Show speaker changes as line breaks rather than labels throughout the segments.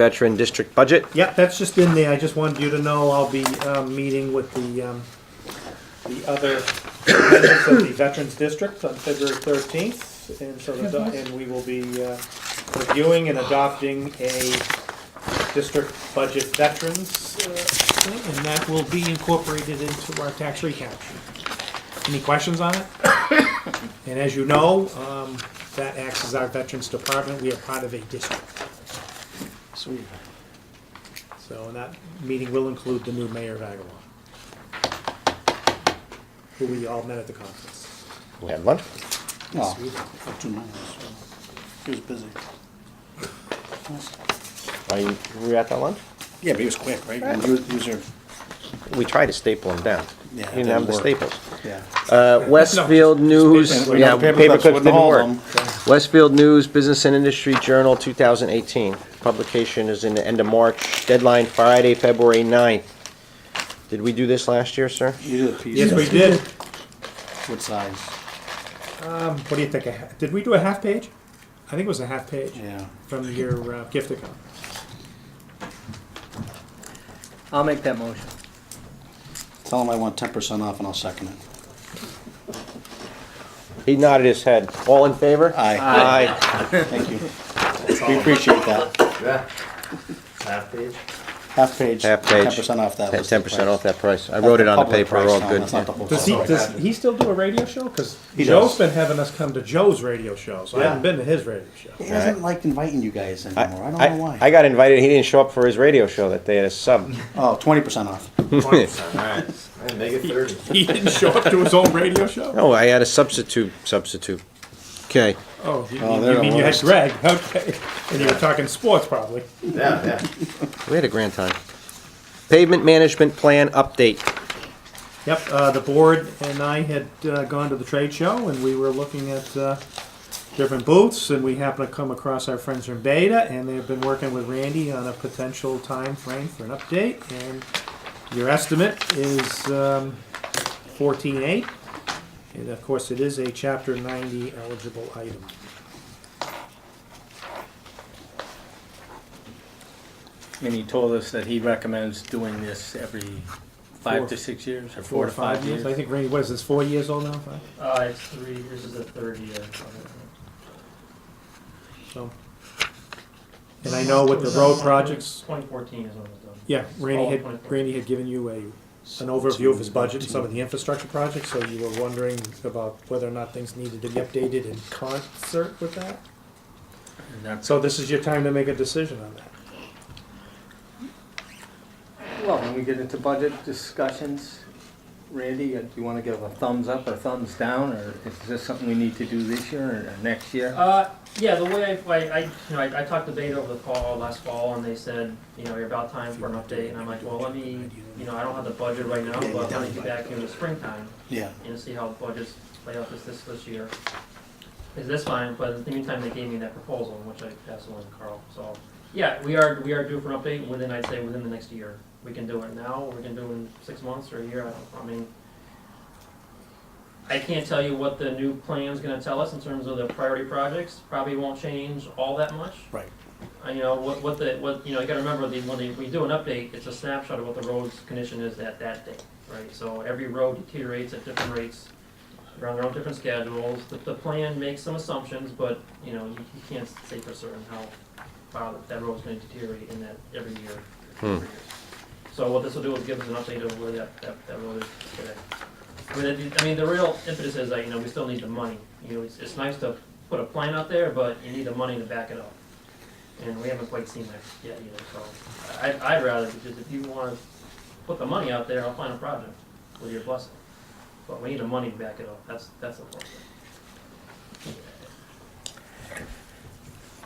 veteran district budget.
Yeah, that's just in there. I just wanted you to know I'll be um, meeting with the, um, the other members of the Veterans District on February 13th. And so, the do- and we will be uh, reviewing and adopting a district budget veterans uh, thing, and that will be incorporated into our tax recap. Any questions on it? And as you know, um, that acts as our Veterans Department. We are part of a district.
Sweet.
So, and that meeting will include the new mayor of Agawam, who we all met at the conference.
We had lunch.
No, for two minutes. He was busy.
Are you, were you at that lunch?
Yeah, but he was quick, right? And he was, he was here.
We tried to staple them down.
Yeah, it
You didn't have
didn't
the
work.
staples.
Yeah.
Uh, Westfield News,
paper-
yeah,
paper
paper
clips
clips
wouldn't
didn't
hold
work.
them.
Westfield News, Business and Industry Journal, 2018. Publication is in the end of March, deadline Friday, February 9th. Did we do this last year, sir?
You did a piece.
Yes, we did.
What size?
Um, What do you think? a ha- Did we do a half page? I think it was a half page
Yeah.
from your uh, gift account.
I'll make that motion.
Tell him I want ten percent off and I'll second it.
He nodded his head. All in favor?
Aye,
Aye.
thank you. We appreciate that.
Yeah. Half page.
Half page.
Half page.
Ten percent off that. was the
Ten percent off
price.
that price. I wrote it on the
Public
paper, we're all
price, Tom,
good.
That's not the whole.
Does he,
price.
does he still do a radio show? Because
He
Joe's
does.
been having us come to Joe's radio show, so I haven't been to his radio show.
He doesn't like inviting you guys anymore. I
I,
don't know
I
why.
got invited, he didn't show up for his radio show that day at a sub.
Oh, twenty percent off.
Alright, and make it thirty.
He didn't show up to his own radio show?
No, I had a substitute, substitute. Okay,
Oh, you
Oh,
mean-
they're
you
the
mean you had
worst.
Greg, okay. And you were talking sports probably.
Yeah, yeah.
we had a grand time. Pavement management plan update.
Yep, uh, the board and I had uh, gone to the trade show and we were looking at uh, different booths and we happened to come across our friends from Beta and they've been working with Randy on a potential time frame for an update and your estimate is um, 14.8 and of course it is a chapter 90 eligible item.
And he told us that he recommends doing this every
Four.
five to six years, or four to five years.
I think Randy, what is this, four years old now? Five?
Uh, it's three, this is uh, the third year. of it.
So. And I know Oh, with the road projects,
Twenty fourteen is when it was done.
Yeah, Randy
All
had,
24.
Randy had given you a, an overview of his budget and some of the infrastructure projects, so you were wondering about whether or not things needed to be updated in concert with that?
And that's-
So this is your time to make a decision on that.
Well, when we get into budget discussions, Randy, uh, do you want to give a thumbs up or thumbs down, or is this something we need to do this year or next year?
Uh, yeah, the way I, I, I, you know, I, I talked to Beta over the fall last fall, and they said, you know, you're about time for an update, and I'm like, well, let me, you know, I don't have the budget right now, but let me get back in the springtime.
Yeah.
you know, see how budgets play out this, this, this year. Is this fine, but in the meantime, they gave me that proposal, which I passed along to Carl, so, yeah, we are, we are due for an update within, I'd say, within the next year. We can do it now, or we can do it in six months or a year, I don't, I mean, I can't tell you what the new plan's gonna tell us in terms of the priority projects, probably won't change all that much.
Right.
Uh, you know, what, what the, what, you know, you gotta remember, the, when they, we do an update, it's a snapshot of what the road's condition is at that day, right? So every road deteriorates at different rates, around their own different schedules, the, the plan makes some assumptions, but, you know, you, you can't say for certain how far that, that road's gonna deteriorate in that every year. every year. So what this will do is give us an update of where that, that, that road is today. I mean, the- I mean, the real impetus is that, you know, we still need the money, you know, it's, it's nice to put a plan out there, but you need the money to back it up. And we haven't quite seen that yet either, so I, I'd rather, because if you wanna put the money out there, I'll find a project with your blessing. But we need the money to back it up, that's, that's the problem.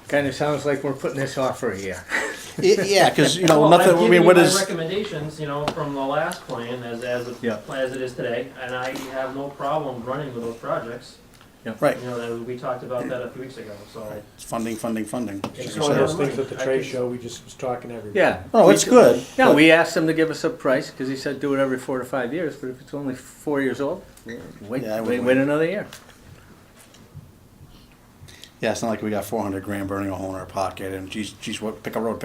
Kind of sounds like we're putting this off for a year.
Y- Yeah, because, you know,
Well, I've
nothing, I
given
mean,
you
what
my
is,
Recommendations, you know, from the last plan as, as, it-
Yeah.
as it is today, and I have no problem running with those projects.
right,
You know, that, we talked about that a few weeks ago, so.
it's funding, funding, funding.
It's
One of
Yeah.
those things at the trade show, we just was talking every.
Yeah.
Oh, it's good.
Yeah, we asked him to give us a price, because he said do it every four to five years, but if it's only four years old, wait,
Yeah, I would
wait,
wait.
wait another year.
Yeah, it's not like we got four hundred grand burning a hole in our pocket and geez, geez, what, pick a road,